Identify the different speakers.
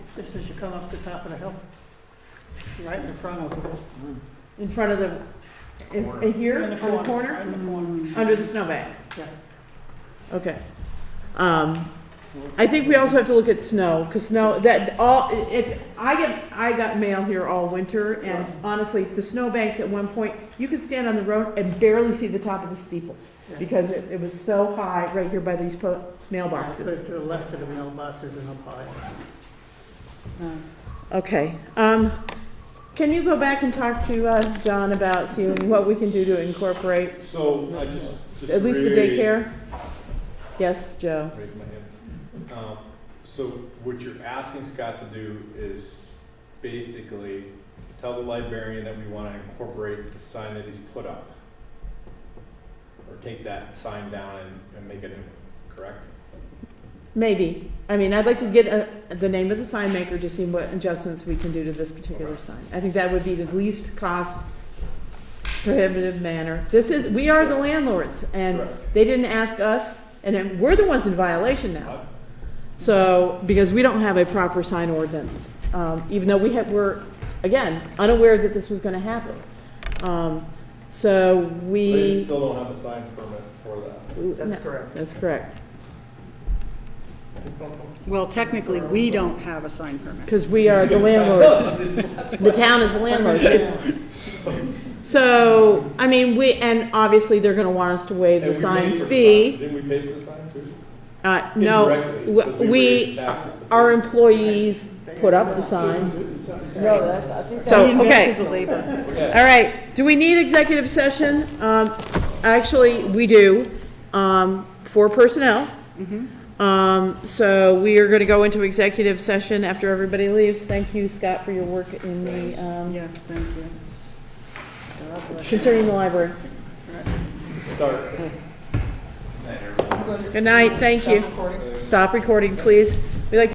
Speaker 1: just as you come up the top of the hill, right in the front of it. In front of the,
Speaker 2: in- Corner.
Speaker 3: here,
Speaker 1: In
Speaker 3: on the corner,
Speaker 1: right in the corner.
Speaker 3: under the snowbank?
Speaker 1: Yeah.
Speaker 3: Okay. Um, I think we also have to look at snow, because snow, that, all, if, I get, I got mail here all winter, and honestly, the snowbanks at one point, you could stand on the road and barely see the top of the steeple,
Speaker 1: Yeah.
Speaker 3: because it, it was so high right here by these po-
Speaker 1: Yeah, put
Speaker 3: mailboxes.
Speaker 1: it To the left of the mailboxes and up high.
Speaker 4: Uh,
Speaker 3: Okay, um, can you go back and talk to, uh, John about, seeing what we can do to incorporate,
Speaker 2: So I just, just.
Speaker 3: at least the
Speaker 2: reiterate-
Speaker 3: daycare? Yes, Joe?
Speaker 2: Raise my hand. Um, So what you're asking Scott to do is basically tell the librarian that we want to incorporate the sign that he's put up. Or take that sign down and, and make it, correct?
Speaker 3: Maybe. I mean, I'd like to get uh the name of the sign maker to see what adjustments we can do to this particular sign. I think that would be the least cost prohibitive manner. This is, we are the landlords and
Speaker 2: Correct.
Speaker 3: they didn't ask us and then we're the ones in violation now.
Speaker 2: Uh,
Speaker 3: So, because we don't have a proper sign ordinance, um, even though we have, we're, again, unaware that this was gonna happen. Um, so
Speaker 2: They
Speaker 3: we.
Speaker 2: still don't have a sign permit for that.
Speaker 3: No,
Speaker 4: That's correct.
Speaker 3: That's correct.
Speaker 4: Well, technically, we don't have a sign permit.
Speaker 3: Cause we are the landlords. The town is landlord, it's, so, I mean, we, and obviously, they're gonna want us to waive
Speaker 2: And we
Speaker 3: the
Speaker 2: paid
Speaker 3: sign
Speaker 2: for the sign.
Speaker 3: fee.
Speaker 2: Didn't we pay for the sign too?
Speaker 3: Uh, no,
Speaker 2: Indirectly,
Speaker 3: w-
Speaker 2: 'cause we raised
Speaker 3: we,
Speaker 2: taxes to pay.
Speaker 3: our employees put up the sign,
Speaker 4: No, that's, I think.
Speaker 3: So,
Speaker 4: We invested
Speaker 3: okay.
Speaker 4: the labor.
Speaker 2: Okay.
Speaker 3: all right, do we need executive session? Um, actually, we do, um, for personnel. Um, so we are gonna go into executive session after everybody leaves, thank you, Scott, for your work in the, um,
Speaker 4: Yes, thank you. God bless you.
Speaker 3: concerning the library.
Speaker 2: Start.
Speaker 3: Good night, thank you. Stop recording, please.